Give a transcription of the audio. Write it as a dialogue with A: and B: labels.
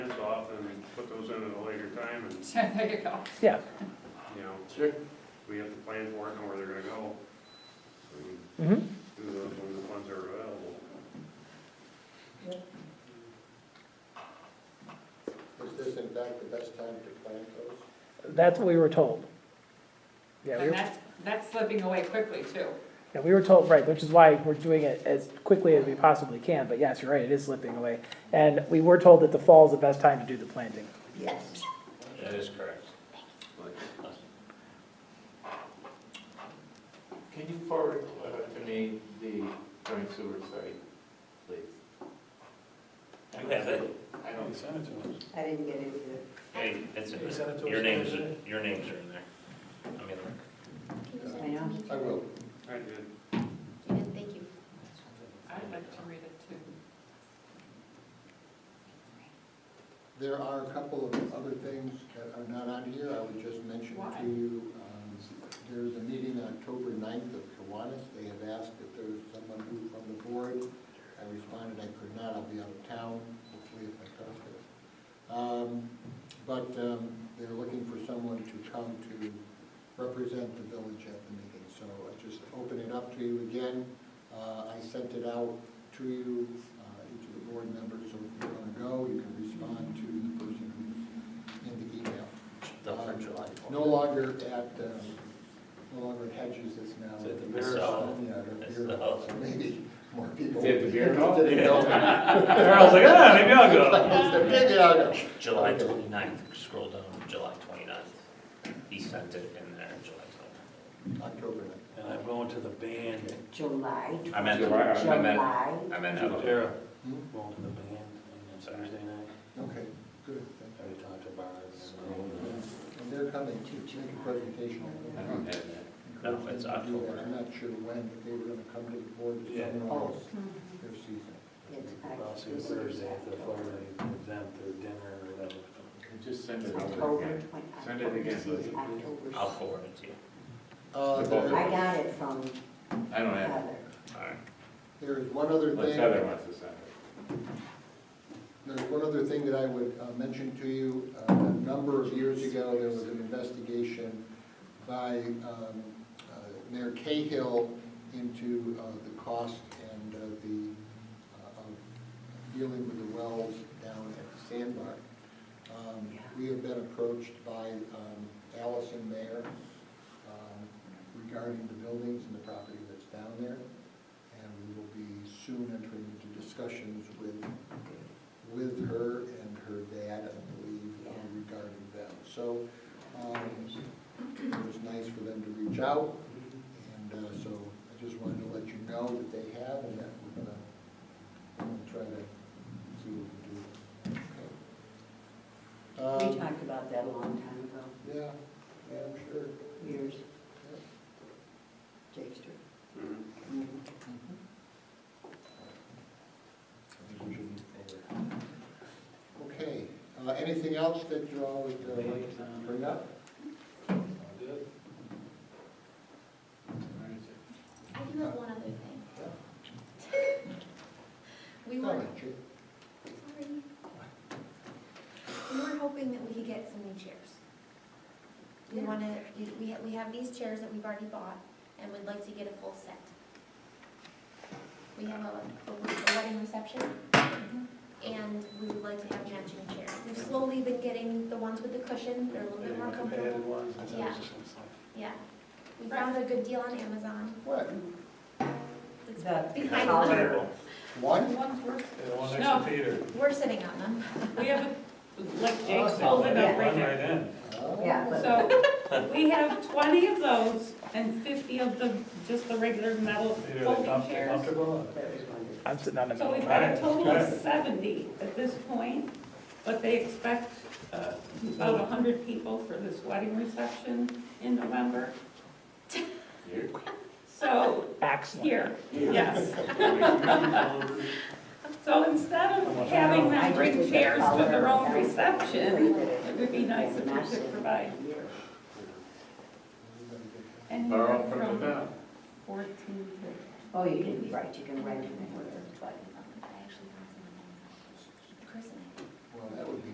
A: put those in at a later time and,
B: There you go.
C: Yeah,
A: you know,
D: Sure.
A: we have to plan for it, know where they're gonna go. So we can
C: mhm.
A: do those when the funds are available.
D: Is this in fact the best time to plant those?
C: that's what we were told. Yeah, we
B: And
C: were,
B: that's, that's slipping away quickly too.
C: yeah, we were told, right, which is why we're doing it as quickly as we possibly can, but yes, you're right, it is slipping away. And we were told that the fall is the best time to do the planting.
D: Yes.
E: That is correct. Can you forward uh, to me the current sewer site, please?
F: You have it?
E: I don't,
G: I didn't get into it.
F: Hey, it's, your names, your names are in there. I mean,
G: I know.
D: I will.
A: I did,
G: Thank you.
B: I'd like to read it too.
D: There are a couple of other things that are not on here, I would just mention
B: Why?
D: to you. um, There's a meeting on October 9th of Kiwanis, they have asked if there's someone who from the board. I responded I could not, I'll be out of town, hopefully if I come to it. Um, But um, they're looking for someone to come to represent the village at the meeting, so I just open it up to you again. Uh, I sent it out to you, uh, each of the board members, so if you want to go, you can respond to the person who's in the email.
E: don't for
D: Um,
E: July.
D: No longer at, um, no longer at Hedges, it's now.
E: It's at the
D: at
E: beer hall.
D: Yeah, the
E: It's
D: beer
E: the
D: hall,
E: hall.
D: so maybe more people.
E: Is it the beer hall?
D: Didn't know.
F: Harold's like, ah, maybe I'll go.
D: I said, Maybe I'll go.
F: July
D: Okay.
F: 29th, scroll down, to July 29th. He sent it in there, July
D: October ninth.
H: And I'm going to the band,
G: July.
F: 29th. I meant,
A: July,
F: I meant,
G: July.
F: I meant, Evelyn.
H: Tara,
D: Hmm?
H: going to the band on Thursday night.
D: Okay, good, thank
H: I already talked to Barb.
D: you. And they're coming to make a presentation.
F: I don't have that. No, it's October.
D: I'm not sure when, but they were gonna come to the board to
H: Yeah.
D: summarize
F: Oh.
D: their season.
G: It's
H: I'll see you Thursday at the fire exempt or dinner or whatever.
E: Just send it over
G: October
E: again.
G: twenty.
E: Send it again,
G: This is October
F: I'll forward it to you.
D: Uh,
E: The both of
D: there-
G: I
E: them.
G: got it from
E: I don't have
G: Heather.
F: All right.
D: There is one other
E: it. Unless
D: thing.
E: Heather wants to send it.
D: There's one other thing that I would uh, mention to you. Uh, A number of years ago, there was an investigation by um, uh, Mayor Cahill into uh, the cost and uh, the, uh, of dealing with the wells down at the sandbar. Um, We have been approached by um, Allison Mayer um, regarding the buildings and the property that's down there. And we will be soon entering into discussions with with her and her dad, I believe, uh, regarding them. So um, it was nice for them to reach out, and uh, so I just wanted to let you know that they have, and that we're gonna, we're gonna try to see what we can
G: We
D: do. Um,
G: talked about that a long time ago,
D: Yeah, yeah, I'm sure.
G: years. Jakester.
A: Mhm.
D: I think we should move forward. Okay, uh, anything else that you all would uh, like to bring up?
I: I do have one other thing.
D: Yeah.
I: We were,
D: Comment, Jake?
I: sorry. We were hoping that we could get some new chairs. We wanted, we- we, ha- we have these chairs that we've already bought and would like to get a full set. We have a, a wedding reception and we would like to have matching chairs. We've slowly been getting the ones with the cushion, they're a little bit more comfortable. Yeah. Yeah, we found a good deal on Amazon.
D: What,
I: It's
G: The
I: behind the
G: collar.
I: chair.
D: one?
B: One's worth-
H: The one
B: next to No.
H: Peter.
I: We're sitting on them.
B: We have, a-
C: Oh,
B: like Jake's holding up right there.
D: Oh.
G: Yeah, but
B: So we have twenty of those and fifty of the, just the regular metal folding chairs.
H: Comfortable?
G: that was wonderful.
C: I'm sitting on the
B: So
C: middle.
B: we've got a total of seventy at this point, but they expect uh, about a hundred people for this wedding reception in November.
E: Here?
B: So,
C: Excellent.
B: here, yes.
A: Mm-hmm.
B: So instead of having them bring chairs to their own reception, it would be nice if we could provide
G: Years.
B: anywhere
E: Borrow from the
B: from
E: town.
B: fourteen to
G: Oh, you did, be right, you can rent them for twenty.
I: I actually found someone in person.
D: Well, that would be